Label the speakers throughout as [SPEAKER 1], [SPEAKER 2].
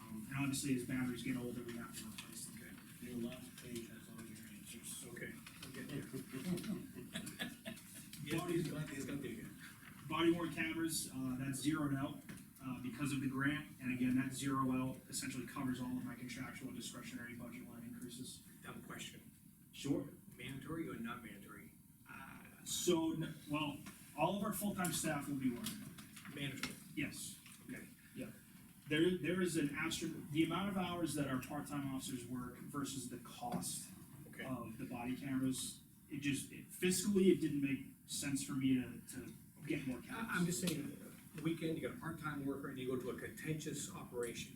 [SPEAKER 1] Um, obviously, as boundaries get older, we have to replace them.
[SPEAKER 2] You're allowed to take as all your answers.
[SPEAKER 1] Okay.
[SPEAKER 2] Yeah, he's got, he's got the,
[SPEAKER 1] Body worn cameras, uh, that's zeroed out, uh, because of the grant, and again, that zero out essentially covers all of my contractual discretionary budget line increases.
[SPEAKER 3] Dumb question,
[SPEAKER 1] Sure.
[SPEAKER 3] mandatory or not mandatory? Uh,
[SPEAKER 1] So, n- well, all of our full-time staff will be working,
[SPEAKER 3] Mandatory.
[SPEAKER 1] yes.
[SPEAKER 3] Okay.
[SPEAKER 1] Yeah. There, there is an astro, the amount of hours that our part-time officers work versus the cost
[SPEAKER 3] Okay,
[SPEAKER 1] of the body cameras, it just, it- fiscally, it didn't make sense for me to, to get more cameras.
[SPEAKER 3] I, am just saying, uh, weekend, you got a part-time worker and you go to a contentious operation.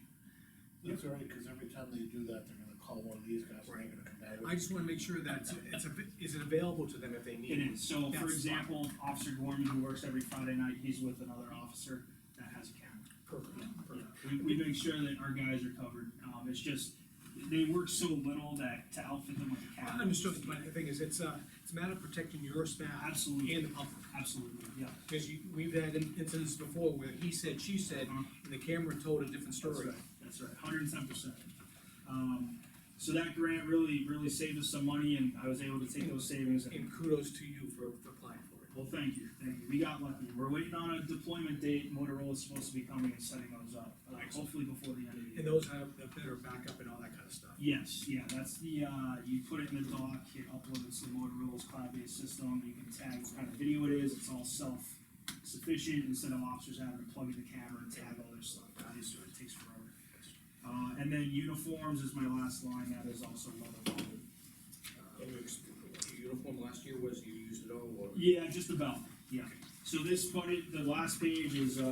[SPEAKER 2] that's all right, cause every time they do that, they're gonna call one of these guys, and they're gonna come back
[SPEAKER 3] I
[SPEAKER 2] with.
[SPEAKER 3] just wanna make sure that it's- it's, av- is it available to them if they need
[SPEAKER 1] It
[SPEAKER 3] it?
[SPEAKER 1] is, so for
[SPEAKER 3] That's
[SPEAKER 1] example, Officer Gorman, who works every Friday night, he's with another officer that has a camera.
[SPEAKER 3] Perfect, perfect.
[SPEAKER 1] We, we make sure that our guys are covered, um, it's just, they work so little that to outfit them with a
[SPEAKER 3] I
[SPEAKER 1] camera.
[SPEAKER 3] Understood, but the thing is, it's a, it's a matter of protecting your staff
[SPEAKER 1] Absolutely,
[SPEAKER 3] and the public.
[SPEAKER 1] absolutely, yeah.
[SPEAKER 3] Because you, we've had in- incidents before where he said, she said, and the camera told a different
[SPEAKER 1] Uh, That's
[SPEAKER 3] story.
[SPEAKER 1] right, that's right, hundred and ten percent. Um, so that grant really, really saved us some money and I was able to take those savings and
[SPEAKER 3] And kudos to you for for applying for it.
[SPEAKER 1] Well, thank you, thank you, we got lucky, we're waiting on a deployment date, Motorola's supposed to be coming and setting those up, uh, hopefully before the end of the year.
[SPEAKER 3] And those have the better backup and all that kind of stuff.
[SPEAKER 1] Yes, yeah, that's the, uh, you put it in the dock, it uploads to Motorola's cloud-based system, you can tag what kind of video it is, it's all self-sufficient, instead of officers having to plug in the camera and tag all their stuff, obviously, it takes forever. Uh, and then uniforms is my last line, that is also another one.
[SPEAKER 3] Uh, your Uniform last year was, you used it all, or?
[SPEAKER 1] Yeah, just about, yeah. So this budget, the last page is, uh,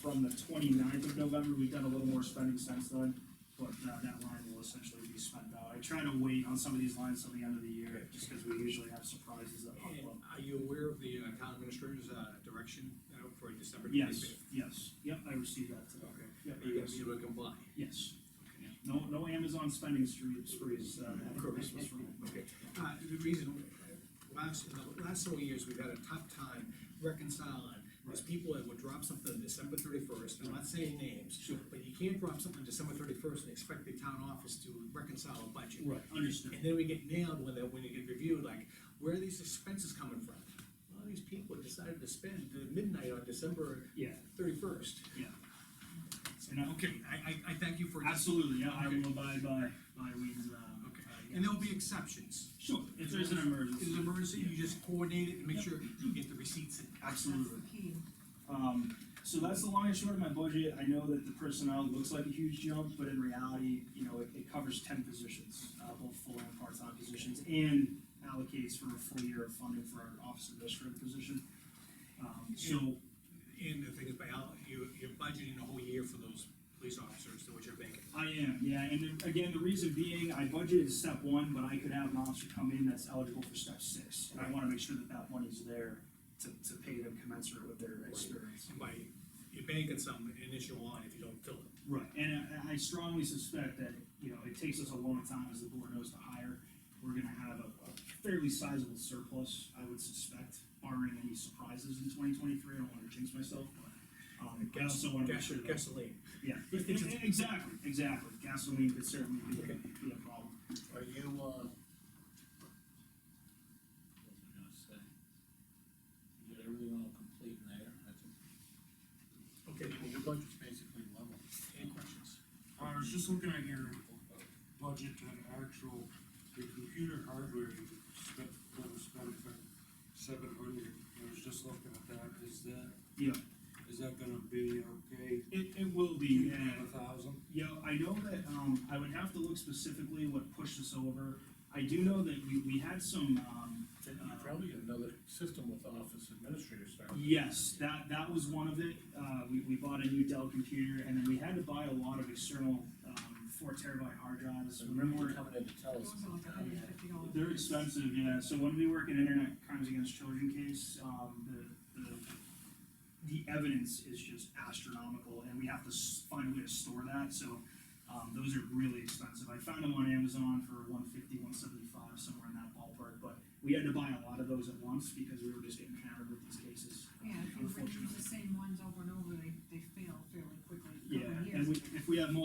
[SPEAKER 1] from the 29th of November, we've done a little more spending since then, but, uh, that line will essentially be spent out. I try to wait on some of these lines till the end of the year, just because we usually have surprises that pop
[SPEAKER 3] And
[SPEAKER 1] up.
[SPEAKER 3] are you aware of the uh, town administrator's uh, direction uh, for December
[SPEAKER 1] Yes,
[SPEAKER 3] twenty-fifth?
[SPEAKER 1] yes, yep, I received that today.
[SPEAKER 3] Okay.
[SPEAKER 1] Yep,
[SPEAKER 3] Are you gonna be able to comply?
[SPEAKER 1] Yes. No, no Amazon spending spree- sprees, uh, after Christmas for me.
[SPEAKER 3] Okay. Uh, the reason, last, the last several years, we've had a tough time reconciling, is
[SPEAKER 1] Right.
[SPEAKER 3] people that would drop something on December thirty-first, I'm not saying names.
[SPEAKER 1] Sure.
[SPEAKER 3] But you can't drop something December thirty-first and expect the town office to reconcile a budget.
[SPEAKER 1] Right, understood.
[SPEAKER 3] And then we get nailed when, that- when you get reviewed, like, where are these expenses coming from? Well, these people decided to spend the midnight on December
[SPEAKER 1] Yeah,
[SPEAKER 3] thirty-first.
[SPEAKER 1] yeah. And I-
[SPEAKER 3] Okay, I, I, I thank you for this.
[SPEAKER 1] Absolutely, yeah, I
[SPEAKER 3] Okay.
[SPEAKER 1] will abide by, by Wayne's, um.
[SPEAKER 3] Okay,
[SPEAKER 1] uh,
[SPEAKER 3] and there'll be exceptions.
[SPEAKER 1] Sure, if there's an emergency.
[SPEAKER 3] If there's an emergency, you just coordinate it and make sure you get the receipts in.
[SPEAKER 4] That's
[SPEAKER 1] Absolutely.
[SPEAKER 4] the key.
[SPEAKER 1] Um, so that's the long and short of my budget. I know that the personnel looks like a huge jump, but in reality, you know, it, it covers ten positions, uh, both full and part-time positions, and allocates for a full year of funding for our office administrative position. Um, so,
[SPEAKER 3] And the thing is, by all, you, you're budgeting a whole year for those police officers, to which are vacant.
[SPEAKER 1] I am, yeah, and then, again, the reason being, I budgeted step one, but I could have an officer come in that's eligible for step six. And I wanna make sure that that money's there to, to pay them commensurate with their experience.
[SPEAKER 3] And by, you're banking some initial line if you don't fill it.
[SPEAKER 1] Right, and I, I strongly suspect that, you know, it takes us a long time, as the board knows, to hire. We're gonna have a a fairly sizable surplus, I would suspect, barring any surprises in twenty twenty-three, I don't wanna jinx myself, but, um, I also wanna make
[SPEAKER 3] Gas-
[SPEAKER 1] sure that,
[SPEAKER 3] Gasoline.
[SPEAKER 1] yeah, E- e- exactly, exactly, gasoline could certainly be, a- be a problem.
[SPEAKER 2] Are you, uh?
[SPEAKER 5] What was I gonna say?
[SPEAKER 2] You got everything all complete in there, I think.
[SPEAKER 3] Okay,
[SPEAKER 2] Well, Your budget's basically level.
[SPEAKER 3] any questions?
[SPEAKER 6] I was Uh, just looking at your budget and actual, your computer hardware, you spent, that was spent for seven hundred, I was just looking at that, is that?
[SPEAKER 1] Yeah.
[SPEAKER 6] Is that gonna be okay?
[SPEAKER 1] It, it will be, yeah.
[SPEAKER 6] A thousand?
[SPEAKER 1] Yeah, I know that, um, I would have to look specifically what pushed us over. I do know that we, we had some, um,
[SPEAKER 2] Then you probably got another system with office administrator staff.
[SPEAKER 1] Yes, that, that was one of it, uh, we, we bought a new Dell computer, and then we had to buy a lot of external, um, four terabyte hard drives,
[SPEAKER 2] So
[SPEAKER 1] remember?
[SPEAKER 2] remember coming in to tell
[SPEAKER 4] It
[SPEAKER 2] us.
[SPEAKER 4] was like a hundred and fifty dollars.
[SPEAKER 1] They're expensive, yeah, so when we work in internet crimes against children case, um, the, the, the evidence is just astronomical, and we have to s- find a way to store that, so, um, those are really expensive, I found them on Amazon for one fifty, one seventy-five, somewhere in that ballpark, but we had to buy a lot of those at once, because we were just getting hammered with these cases,
[SPEAKER 4] Yeah, if you
[SPEAKER 1] unfortunately.
[SPEAKER 4] use the same ones over and over, they, they fail fairly quickly.
[SPEAKER 1] Yeah,
[SPEAKER 4] Over years.
[SPEAKER 1] and we, if we have multiple